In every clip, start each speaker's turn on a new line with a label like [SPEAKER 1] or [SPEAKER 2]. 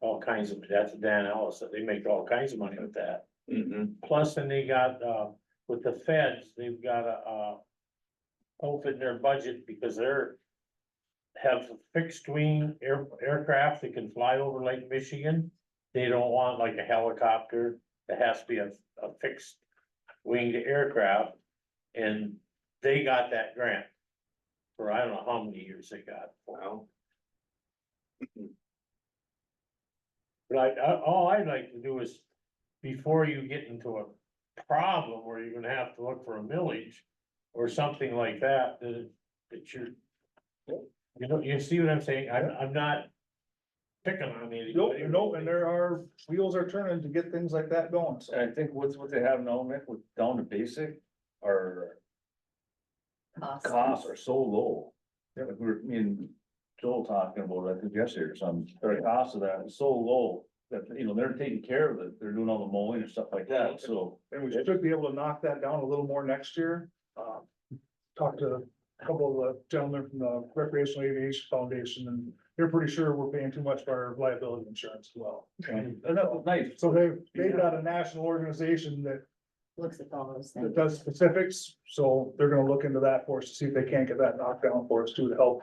[SPEAKER 1] all kinds of, that's Dan Ellis, they make all kinds of money with that.
[SPEAKER 2] Mhm.
[SPEAKER 1] Plus, then they got, uh, with the feds, they've got a, uh. Open their budget because they're. Have fixed wing air, aircraft that can fly over Lake Michigan. They don't want like a helicopter, it has to be a, a fixed winged aircraft. And they got that grant. For I don't know how many years they got.
[SPEAKER 2] Wow.
[SPEAKER 1] But I, I, all I'd like to do is, before you get into a problem where you're gonna have to look for a millage. Or something like that, that, that you're. You know, you see what I'm saying? I'm, I'm not picking on anybody.
[SPEAKER 3] Nope, nope, and there are, wheels are turning to get things like that going, so.
[SPEAKER 2] I think what's what they have now, Mick, with down to basic, our costs are so low.
[SPEAKER 3] Yep.
[SPEAKER 2] Like we were, me and Joel talking about, it, I think yesterday or something, their cost of that is so low that, you know, they're taking care of it, they're doing all the mowing and stuff like that, so.
[SPEAKER 3] And we should be able to knock that down a little more next year. Um, talked to a couple of the gentlemen from the Recreational Aviation Foundation, and they're pretty sure we're paying too much for our liability insurance as well.
[SPEAKER 2] And that was nice,
[SPEAKER 3] So they, they've got a national organization that,
[SPEAKER 4] Looks at all those
[SPEAKER 3] that
[SPEAKER 4] things.
[SPEAKER 3] does specifics, so they're gonna look into that for us to see if they can't get that knocked down for us too to help.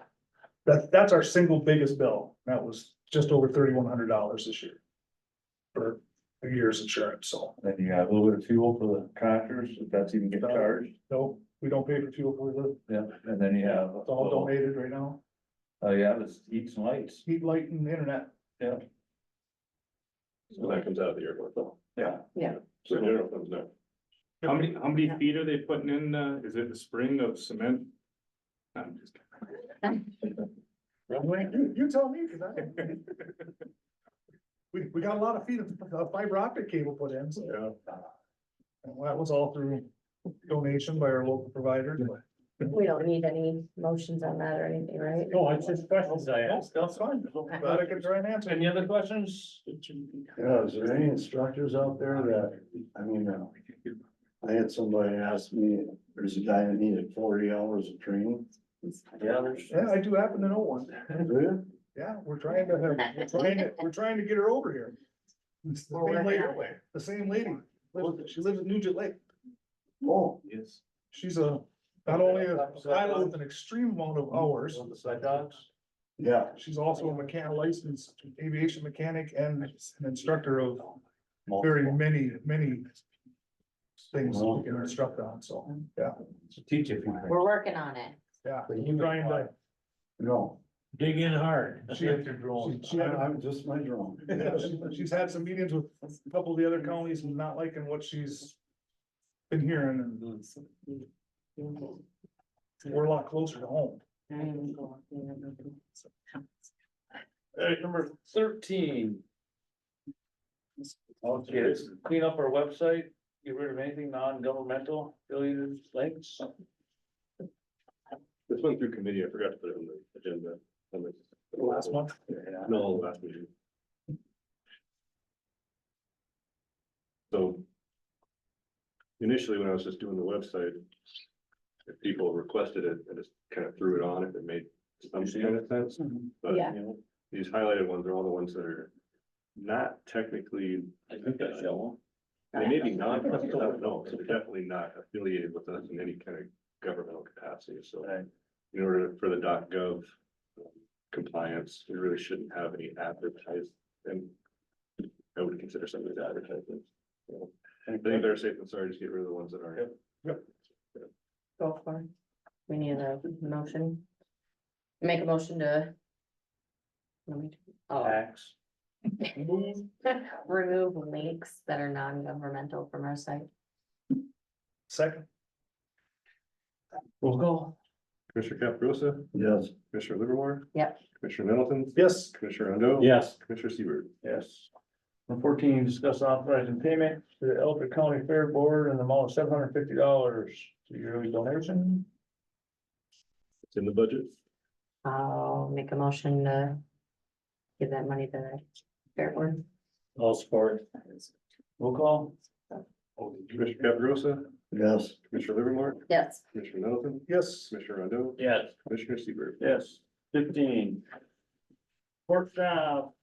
[SPEAKER 3] That, that's our single biggest bill. That was just over thirty-one hundred dollars this year. For a year's insurance, so.
[SPEAKER 2] then you have a little bit of fuel for the tractors, if that's even getting charged,
[SPEAKER 3] No, we don't pay for fuel for the,
[SPEAKER 2] yeah, and then you have.
[SPEAKER 3] it's all donated right now,
[SPEAKER 2] Oh, yeah, it's heat and lights,
[SPEAKER 3] heat, light and internet.
[SPEAKER 2] yeah.
[SPEAKER 5] And that comes out of the airport though.
[SPEAKER 2] Yeah.
[SPEAKER 5] So the general comes next.
[SPEAKER 6] How many, how many
[SPEAKER 4] Yeah.
[SPEAKER 6] feet are they putting in, uh, is it a spring of cement? I'm just kidding.
[SPEAKER 1] Runway?
[SPEAKER 3] You, you tell me, cause I. don't- We, we got a lot of feet of of fiber optic cable put in, so. And that was all through donation by our local provider.
[SPEAKER 4] We don't need any motions on that or anything, right?
[SPEAKER 1] No, it's just questions I asked.
[SPEAKER 3] That's fine, glad I could try and answer.
[SPEAKER 2] Any other questions?
[SPEAKER 7] Yeah, is there any instructors out there that, I mean, uh, I had somebody ask me, there's a guy that needed forty hours of training.
[SPEAKER 2] Yeah, there's.
[SPEAKER 3] Yeah, I do happen to know one,
[SPEAKER 7] Really?
[SPEAKER 3] yeah, we're trying to have, we're trying to, we're trying to get her over here. It's the
[SPEAKER 4] Well,
[SPEAKER 3] same
[SPEAKER 4] we're
[SPEAKER 3] lady,
[SPEAKER 4] that way.
[SPEAKER 3] the same lady, lives- she lives in Nugent Lake.
[SPEAKER 7] Oh,
[SPEAKER 2] Yes.
[SPEAKER 3] She's a, not only a pilot with an extreme amount of hours,
[SPEAKER 2] On the side dogs.
[SPEAKER 7] yeah,
[SPEAKER 3] she's also a mechanic licensed aviation mechanic and an instructor of
[SPEAKER 2] Oh.
[SPEAKER 3] very many, many things we can instruct on, so, yeah,
[SPEAKER 2] Teach if you.
[SPEAKER 4] We're working on it.
[SPEAKER 3] yeah.
[SPEAKER 1] Trying to
[SPEAKER 7] no,
[SPEAKER 1] dig in hard.
[SPEAKER 3] She had she- she
[SPEAKER 7] I-
[SPEAKER 3] had-
[SPEAKER 7] I'm just my drone.
[SPEAKER 3] Yeah, she- She's had some meetings with a couple of the other counties and not liking what she's been hearing and we're a lot closer to home.
[SPEAKER 2] Alright, number thirteen. Okay, this is clean up our website, get rid of anything non-governmental, affiliated links.
[SPEAKER 5] This went through committee, I forgot to put it on the agenda. on the-
[SPEAKER 3] Last month,
[SPEAKER 5] No, last meeting. So. Initially, when I was just doing the website. If people requested it, I just kind of threw it on if it made some kind of sense. But
[SPEAKER 4] Yeah.
[SPEAKER 5] these highlighted ones are all the ones that are not technically,
[SPEAKER 2] I think that's yellow.
[SPEAKER 5] they may be non, I don't know, but they're definitely not affiliated with us in any kind of governmental capacity, so
[SPEAKER 2] Right.
[SPEAKER 5] in order for the dot gov compliance, we really shouldn't have any advertised and I would consider some of these advertisements. I think better safe than sorry, just get rid of the ones that aren't.
[SPEAKER 4] Go for it. We need a motion. Make a motion to. Let me do- oh.
[SPEAKER 2] Tax.
[SPEAKER 4] Remove links that are non-governmental from our site.
[SPEAKER 3] second,
[SPEAKER 2] We'll go.
[SPEAKER 5] Commissioner Caprosa,
[SPEAKER 7] Yes,
[SPEAKER 5] Commissioner Livermore.
[SPEAKER 4] Yep.
[SPEAKER 5] Commissioner Middleton,
[SPEAKER 3] yes,
[SPEAKER 5] Commissioner Rondo.
[SPEAKER 1] Yes,
[SPEAKER 5] Commissioner Seaver.
[SPEAKER 2] Yes. Number fourteen, discuss authorizing payment to the Elder County Fair Board in the amount of seven hundred fifty dollars to yearly donation.
[SPEAKER 5] It's in the budget.
[SPEAKER 4] I'll make a motion to. Give that money to the fair board.
[SPEAKER 1] all support.
[SPEAKER 2] Roll call.
[SPEAKER 5] Commissioner Caprosa,
[SPEAKER 7] yes,
[SPEAKER 5] Commissioner Livermore,
[SPEAKER 4] Yes,
[SPEAKER 5] Commissioner Middleton,
[SPEAKER 3] yes,
[SPEAKER 5] Commissioner Rondo,
[SPEAKER 2] Yes.
[SPEAKER 5] Commissioner Seaver.
[SPEAKER 2] Yes, fifteen. Workshop